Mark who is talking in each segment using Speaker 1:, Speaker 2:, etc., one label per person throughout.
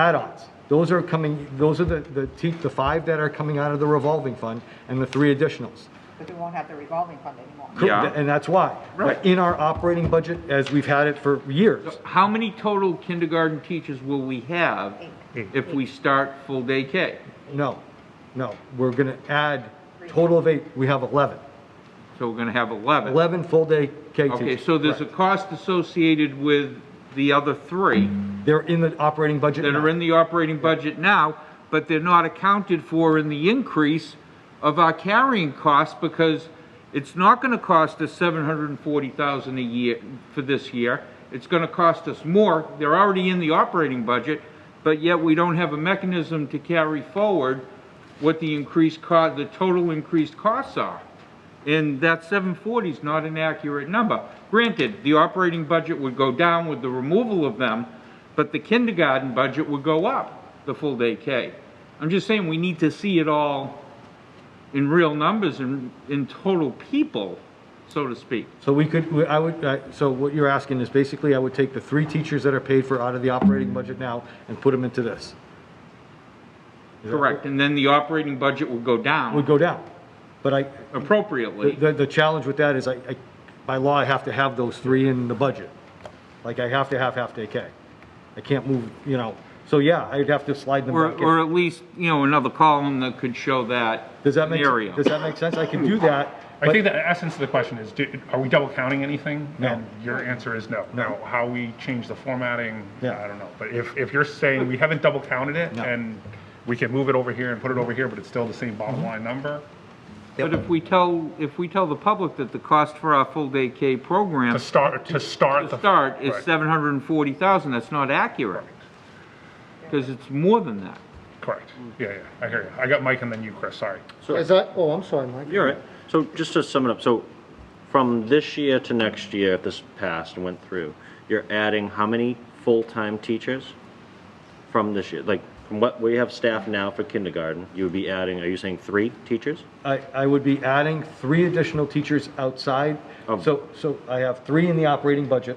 Speaker 1: add-ons. Those are coming, those are the, the, te- the five that are coming out of the revolving fund and the three additionals.
Speaker 2: Because we won't have the revolving fund anymore.
Speaker 1: Cor-
Speaker 3: Yeah.
Speaker 1: And that's why.
Speaker 3: Right.
Speaker 1: In our operating budget, as we've had it for years,
Speaker 3: How many total kindergarten teachers will we have if we start full day K?
Speaker 1: no, no, we're gonna add, total of eight, we have 11.
Speaker 3: So we're gonna have 11.
Speaker 1: 11 full-day K teachers.
Speaker 3: Okay, so there's a
Speaker 1: Correct.
Speaker 3: cost associated with the other three
Speaker 1: They're in the operating budget
Speaker 3: that are
Speaker 1: now.
Speaker 3: in the operating budget now, but they're not accounted for in the increase of our carrying costs because it's not gonna cost us 740,000 a year for this year. It's gonna cost us more. They're already in the operating budget, but yet we don't have a mechanism to carry forward what the increased co, the total increased costs are. And that 740 is not an accurate number. Granted, the operating budget would go down with the removal of them, but the kindergarten budget would go up, the full day K. I'm just saying, we need to see it all in real numbers and in total people, so to speak.
Speaker 1: So we could, we- I would, I- so what you're asking is basically I would take the three teachers that are paid for out of the operating budget now and put them into this.
Speaker 3: Correct, and then the operating budget would go
Speaker 1: Would
Speaker 3: down
Speaker 1: go down. But I, the-
Speaker 3: appropriately.
Speaker 1: the, the challenge with that is I, I, by law, I have to have those three in the budget. Like I have to have half-day K. I can't move, you know, so yeah, I'd have to slide them
Speaker 3: Or,
Speaker 1: back in.
Speaker 3: or at least, you know, another column that could show that
Speaker 1: Does that make,
Speaker 3: scenario.
Speaker 1: does that make sense? I can do that.
Speaker 4: I
Speaker 1: but-
Speaker 4: think the essence of the question is, do- are we double counting anything?
Speaker 1: No.
Speaker 4: And your answer is no. Now, how we change the formatting,
Speaker 1: Yeah.
Speaker 4: I don't know. But if, if you're saying we haven't double counted it and we can move it over here and put it over here, but it's still the same bottom
Speaker 1: Mm-hmm.
Speaker 4: line number,
Speaker 3: But if we tell, if we tell the public that the cost for our full day K program
Speaker 4: to start, to start.
Speaker 3: to
Speaker 4: the
Speaker 3: start is
Speaker 4: Right.
Speaker 3: seven hundred and forty thousand, that's not accurate. Because it's more than that.
Speaker 4: Correct. Yeah, yeah, I hear you. I got Mike and then you, Chris, sorry.
Speaker 5: Is that, oh, I'm sorry, Mike.
Speaker 6: You're right. So just to sum it up, so from this year to next year, if this passed and went through, you're adding how many full-time teachers from this year? Like, from what we have staff now for kindergarten, you would be adding, are you saying three teachers?
Speaker 1: I, I would be adding three additional teachers outside.
Speaker 6: Of-
Speaker 1: So, so I have three in the operating budget.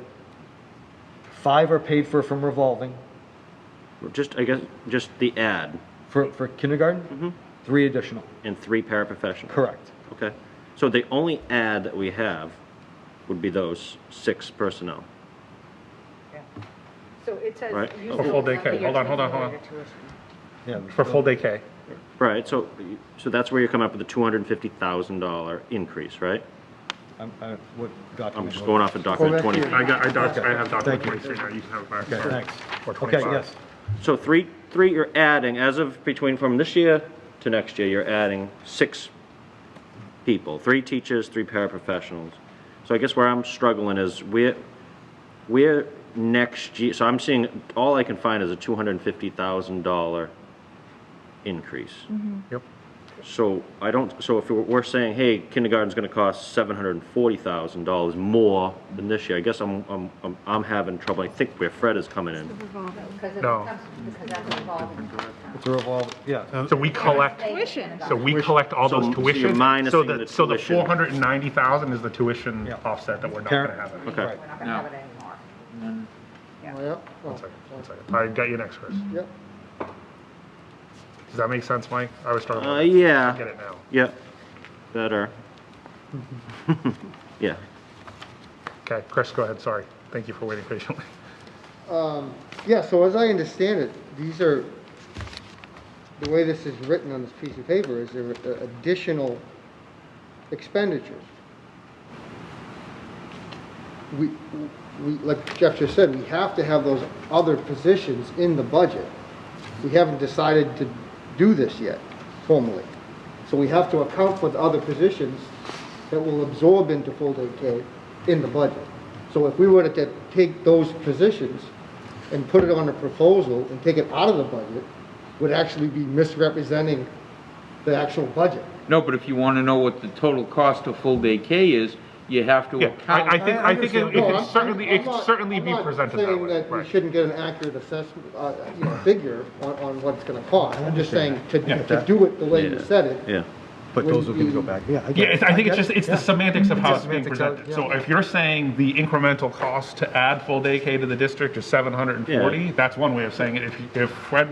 Speaker 1: Five are paid for from revolving
Speaker 6: Or Just, I guess, just the ad
Speaker 1: for, for kindergarten.
Speaker 6: Mm-hmm.
Speaker 1: Three additional,
Speaker 6: and three paraprofessionals?
Speaker 1: correct.
Speaker 6: Okay. So the only ad that we have would be those six personnel.
Speaker 2: So it says.
Speaker 6: Right.
Speaker 2: use
Speaker 4: For
Speaker 2: the
Speaker 4: Oh, full day K.
Speaker 2: remainder
Speaker 4: Hold on, hold on, hold on.
Speaker 2: to tuition.
Speaker 1: Yeah.
Speaker 4: For full day K.
Speaker 6: Right, so, so that's where you're coming up with the $250,000 increase, right?
Speaker 1: I'm, I, what
Speaker 6: I'm
Speaker 1: document?
Speaker 6: just going off of document
Speaker 5: Correct.
Speaker 6: 20.
Speaker 4: I got, I doc, I have document
Speaker 1: Thank you.
Speaker 4: 23 now, you can have it back. sorry.
Speaker 1: Thanks.
Speaker 4: Or
Speaker 1: Okay,
Speaker 4: 25.
Speaker 1: yes.
Speaker 6: So three, three, you're adding, as of between, from this year to next year, you're adding six people, three teachers, three paraprofessionals. So I guess where I'm struggling is we're, we're next year, so I'm seeing, all I can find is a two hundred and fifty thousand dollar increase.
Speaker 4: Yep.
Speaker 6: So I don't, so if we're- we're saying, hey, kindergarten's gonna cost seven hundred and forty thousand dollars more than this year, I guess I'm, I'm, I'm- I'm having trouble. I think where Fred is coming in.
Speaker 2: Because it
Speaker 4: No.
Speaker 2: becomes, because that's revolving.
Speaker 1: It's a revolve, yeah.
Speaker 4: So we collect.
Speaker 2: Tuition.
Speaker 4: So we collect all those
Speaker 6: So- so you're
Speaker 4: tuitions,
Speaker 6: minusing
Speaker 4: so
Speaker 6: the
Speaker 4: that, so the
Speaker 6: tuition.
Speaker 4: four hundred and ninety thousand is the tuition
Speaker 1: Yeah.
Speaker 4: offset that we're not
Speaker 1: Karen?
Speaker 4: gonna have. it.
Speaker 6: Okay.
Speaker 2: We're not gonna have it anymore.
Speaker 5: Oh, yeah. Oh,
Speaker 4: One second, one second. I got you next, Chris.
Speaker 5: Yep.
Speaker 4: Does that make sense, Mike? I was struggling.
Speaker 6: Uh,
Speaker 4: with it.
Speaker 6: yeah.
Speaker 4: I Get it now.
Speaker 6: Yeah, better. Yeah,
Speaker 4: Okay, Chris, go ahead, sorry. Thank you for waiting patiently.
Speaker 5: Yeah, so as I understand it, these are, the way this is written on this piece of paper is there are additional expenditures. We, we, like Jeff just said, we have to have those other positions in the budget. We haven't decided to do this yet formally. So we have to account for the other positions that will absorb into full-day K in the budget. So if we were to take those positions and put it on a proposal and take it out of the budget, would actually be misrepresenting the actual budget.
Speaker 3: No, but if you want to know what the total cost of full day K is, you have to
Speaker 4: Yeah, I, I
Speaker 3: account.
Speaker 4: think, I think it it
Speaker 5: No,
Speaker 4: can
Speaker 5: I'm-
Speaker 4: certainly,
Speaker 5: I'm
Speaker 4: it can
Speaker 5: not-
Speaker 4: certainly be presented that
Speaker 5: I'm not
Speaker 4: way,
Speaker 5: saying that we
Speaker 4: right?
Speaker 5: shouldn't get an accurate assessment, uh, you know, figure on, on what it's gonna cost. I'm just saying to, to do it the way you said it.
Speaker 6: yeah.
Speaker 1: But those are gonna go back, yeah. I get
Speaker 4: Yeah,
Speaker 1: it.
Speaker 4: it's- I think it's
Speaker 1: get
Speaker 4: just,
Speaker 1: it,
Speaker 4: it's the
Speaker 1: yeah.
Speaker 4: semantics of how it's being
Speaker 1: Semantics of-
Speaker 4: presented. So if you're saying the incremental cost to add full day K to the district is 740, that's one way of saying it. If, you- if Fred